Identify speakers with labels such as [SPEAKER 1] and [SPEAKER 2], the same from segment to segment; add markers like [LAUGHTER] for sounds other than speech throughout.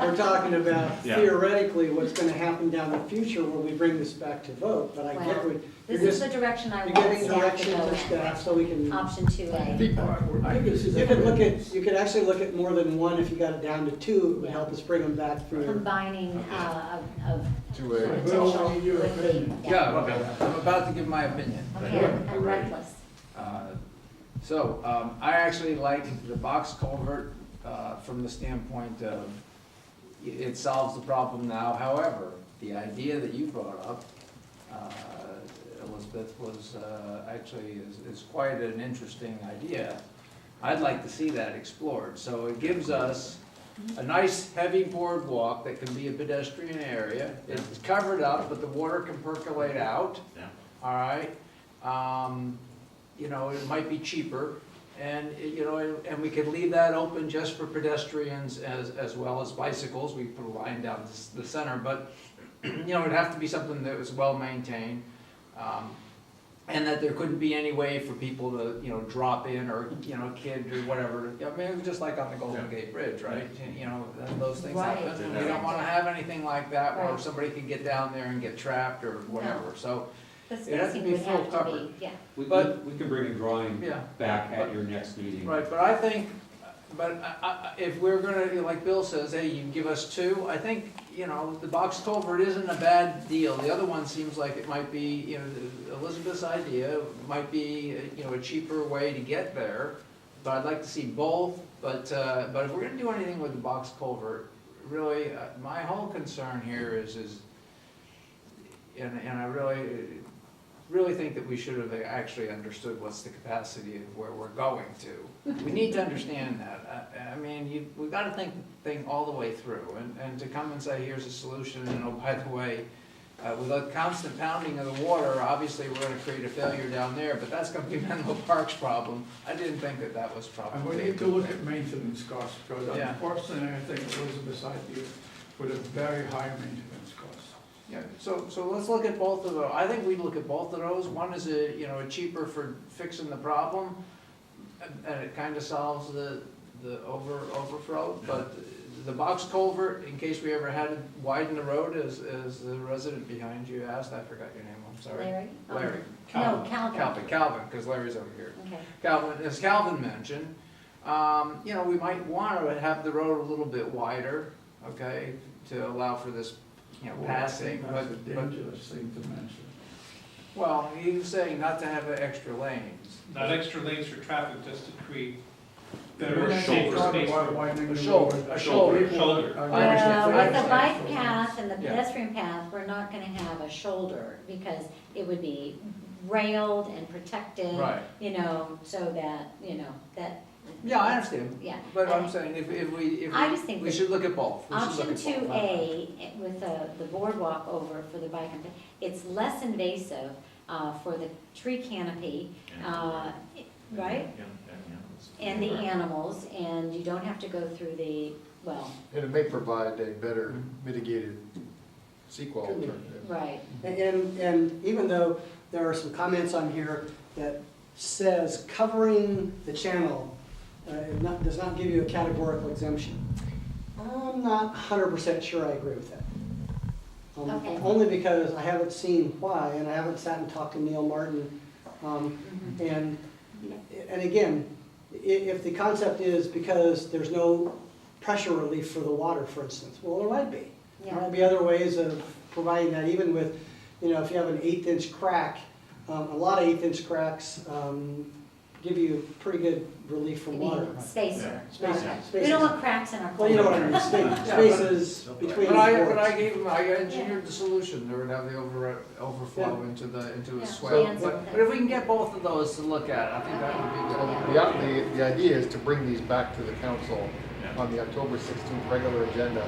[SPEAKER 1] we're talking about
[SPEAKER 2] Yeah.
[SPEAKER 1] theoretically what's gonna happen down the future when we bring this back to vote, but I get
[SPEAKER 3] Well,
[SPEAKER 1] what, you're
[SPEAKER 3] This is
[SPEAKER 1] just,
[SPEAKER 3] the direction I
[SPEAKER 1] you're
[SPEAKER 3] want staff
[SPEAKER 1] getting
[SPEAKER 3] to
[SPEAKER 1] direction
[SPEAKER 3] go
[SPEAKER 1] from
[SPEAKER 3] in.
[SPEAKER 1] staff so we can.
[SPEAKER 3] Option two A.
[SPEAKER 4] I think this is.
[SPEAKER 1] You could look at, you could actually look at more than one, if you got it down to two, it would help us bring them back through.
[SPEAKER 3] Combining uh, of, of
[SPEAKER 5] Two A.
[SPEAKER 4] Well,
[SPEAKER 3] potential
[SPEAKER 4] I need your
[SPEAKER 3] would be.
[SPEAKER 4] opinion.
[SPEAKER 6] Yeah, okay, I'm about to give my opinion.
[SPEAKER 3] Okay, I'm
[SPEAKER 6] Right.
[SPEAKER 3] reckless.
[SPEAKER 6] Uh, So, um, I actually like the box culvert, uh, from the standpoint of, i- it solves the problem now, however, the idea that you brought up, uh, Elizabeth, was, uh, actually is, is quite an interesting idea. I'd like to see that explored, so it gives us a nice heavy boardwalk that can be a pedestrian area. It's covered up, but the water can percolate out.
[SPEAKER 2] Yeah.
[SPEAKER 6] All right, um, you know, it might be cheaper, and, it- you know, and we could leave that open just for pedestrians as, as well as bicycles, we put a line down the s- the center, but, you know, it'd have to be something that was well-maintained, um, and that there couldn't be any way for people to, you know, drop in, or, you know, kid, or whatever, I mean, it was just like on the Golden Gate Bridge, right? You know, those things happen,
[SPEAKER 3] Right,
[SPEAKER 6] and we don't wanna have anything like that, where
[SPEAKER 3] Right.
[SPEAKER 6] somebody could get down there and get trapped or whatever, so,
[SPEAKER 3] The
[SPEAKER 6] It'd have to
[SPEAKER 3] spacing
[SPEAKER 6] be
[SPEAKER 3] would
[SPEAKER 6] full
[SPEAKER 3] have to
[SPEAKER 6] covered.
[SPEAKER 3] be, yeah.
[SPEAKER 7] We,
[SPEAKER 6] But-
[SPEAKER 7] we we can bring a drawing
[SPEAKER 6] Yeah,
[SPEAKER 7] back at your next meeting.
[SPEAKER 6] right, but I think, but I- I, I, if we're gonna, like Bill says, hey, you can give us two, I think, you know, the box culvert isn't a bad deal. The other one seems like it might be, you know, Elizabeth's idea might be, you know, a cheaper way to get there. But I'd like to see both, but, uh, but if we're gonna do anything with the box culvert, really, uh, my whole concern here is, is, and, and I really, really think that we should have actually understood what's the capacity of where we're going to. We need to understand that. I, I mean, you, we've got to think the thing all the way through, and, and to come and say, here's a solution, and oh, by the way, uh, with a constant pounding of the water, obviously, we're gonna create a failure down there, but that's gonna be [LAUGHS] Menlo Park's problem. I didn't think that that was
[SPEAKER 4] And we
[SPEAKER 6] probably.
[SPEAKER 4] need to look at maintenance costs, because
[SPEAKER 6] Yeah.
[SPEAKER 4] unfortunately, I think Elizabeth's idea with a very high maintenance cost.
[SPEAKER 6] Yeah, so, so let's look at both of those. I think we look at both of those. One is a, you know, a cheaper for fixing the problem, and- and it kind of solves the, the over, overflow. But the box culvert, in case we ever had to widen the road, as, as the resident behind you asked, I forgot your name, I'm sorry.
[SPEAKER 3] Larry? Oh,
[SPEAKER 6] Larry.
[SPEAKER 3] No, Calvin.
[SPEAKER 6] Calvin, Calvin, because Larry's over here.
[SPEAKER 3] Okay.
[SPEAKER 6] Calvin, as Calvin mentioned, um, you know, we might want to have the road a little bit wider, okay, to allow for this, you know, passing,
[SPEAKER 4] Well, I
[SPEAKER 6] but,
[SPEAKER 4] think That's a
[SPEAKER 6] but,
[SPEAKER 4] dangerous thing to mention.
[SPEAKER 6] well, he was saying not to have extra lanes.
[SPEAKER 8] not extra lanes for traffic, just to create better,
[SPEAKER 4] We're gonna
[SPEAKER 8] safer
[SPEAKER 4] talk
[SPEAKER 8] space.
[SPEAKER 4] about widening
[SPEAKER 6] A
[SPEAKER 4] the
[SPEAKER 6] shoulder,
[SPEAKER 4] road.
[SPEAKER 6] a shoulder.
[SPEAKER 8] Shoulder.
[SPEAKER 4] I
[SPEAKER 3] Well,
[SPEAKER 6] understand.
[SPEAKER 4] understand.
[SPEAKER 3] with the bike path and the
[SPEAKER 6] Yeah.
[SPEAKER 3] pedestrian path, we're not gonna have a shoulder, because it would be railed and protected.
[SPEAKER 6] Right.
[SPEAKER 3] You know, so that, you know, that,
[SPEAKER 6] Yeah, I understand,
[SPEAKER 3] yeah.
[SPEAKER 6] but
[SPEAKER 3] I-
[SPEAKER 6] I'm saying if, if we, if
[SPEAKER 3] I just
[SPEAKER 6] we,
[SPEAKER 3] think
[SPEAKER 6] we
[SPEAKER 3] that
[SPEAKER 6] should look at both. We should look
[SPEAKER 3] Option
[SPEAKER 6] at both.
[SPEAKER 3] two A with the, the boardwalk over for the bike, and- it's less invasive uh, for the tree canopy, uh, right?
[SPEAKER 2] Yeah, yeah, yeah.
[SPEAKER 3] And the animals, and you don't have to go through the, well,
[SPEAKER 5] And it may provide a better mitigated sequel
[SPEAKER 1] Could be.
[SPEAKER 5] alternative.
[SPEAKER 3] right,
[SPEAKER 1] And- And, and even though there are some comments on here that says covering the channel, uh, it not, does not give you a categorical exemption. I'm not hundred percent sure I agree with that. Um,
[SPEAKER 3] Okay.
[SPEAKER 1] Only because I haven't seen why, and I haven't sat and talked to Neil Martin, um, and, and again, i- if the concept is because there's no pressure relief for the water, for instance, well, there might be. There
[SPEAKER 3] yeah.
[SPEAKER 1] might be other ways of providing that, even with, you know, if you have an eighth-inch crack, um, a lot of eighth-inch cracks um, give you pretty good relief
[SPEAKER 3] You
[SPEAKER 1] from water.
[SPEAKER 3] mean spacer.
[SPEAKER 1] Yeah. Spacer,
[SPEAKER 3] right. We
[SPEAKER 1] spaces.
[SPEAKER 3] don't want cracks in our.
[SPEAKER 1] Well, you know what I
[SPEAKER 6] [LAUGHS]
[SPEAKER 1] mean, space- spaces between
[SPEAKER 6] But I, but I
[SPEAKER 1] boards.
[SPEAKER 6] gave him, I engineered the solution, there would have the over, overflow
[SPEAKER 1] Yeah.
[SPEAKER 6] into the, into
[SPEAKER 3] Yeah.
[SPEAKER 6] a swell.
[SPEAKER 3] Plans and
[SPEAKER 6] But, but if we can get both of those to look at, I think that would be good.
[SPEAKER 5] The, out- the, the idea is to bring these back to the council
[SPEAKER 2] Yeah.
[SPEAKER 5] on the October sixteenth regular agenda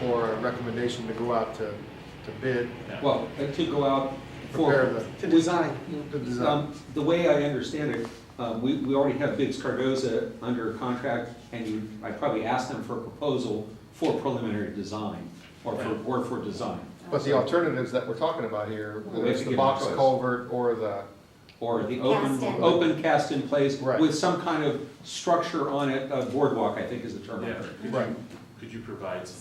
[SPEAKER 5] for a recommendation to go out to, to bid,
[SPEAKER 2] Yeah.
[SPEAKER 7] Well, and to go out
[SPEAKER 5] prepare
[SPEAKER 7] for,
[SPEAKER 5] the,
[SPEAKER 1] To design,
[SPEAKER 5] the design.
[SPEAKER 7] um, the way I understand it, um, we, we already have Biggs Cardoza under contract, and you, I probably asked them for a proposal for preliminary design, or for, or for design,
[SPEAKER 5] But the alternatives that we're talking about here,
[SPEAKER 7] Well,
[SPEAKER 5] whether
[SPEAKER 7] we
[SPEAKER 5] it's
[SPEAKER 7] should
[SPEAKER 5] the
[SPEAKER 7] give them
[SPEAKER 5] box
[SPEAKER 7] choice.
[SPEAKER 5] culvert or the,
[SPEAKER 7] or the
[SPEAKER 3] Cast in.
[SPEAKER 7] open, open cast in place
[SPEAKER 5] Right.
[SPEAKER 7] with some kind of structure on it, a boardwalk, I think is the term.
[SPEAKER 2] Yeah, could you-
[SPEAKER 5] Right.
[SPEAKER 2] Could you provide some